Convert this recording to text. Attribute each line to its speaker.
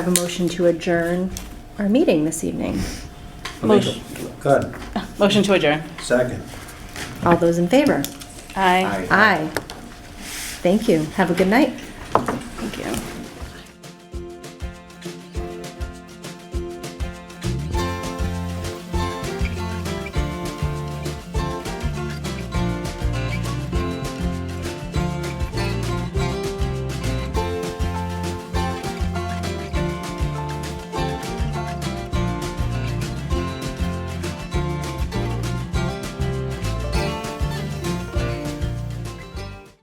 Speaker 1: I have a motion to adjourn our meeting this evening.
Speaker 2: Motion.
Speaker 3: Good,
Speaker 2: Motion to adjourn.
Speaker 3: second.
Speaker 1: All those in favor?
Speaker 2: Aye.
Speaker 1: Aye. Thank you. Have a good night.
Speaker 2: Thank you.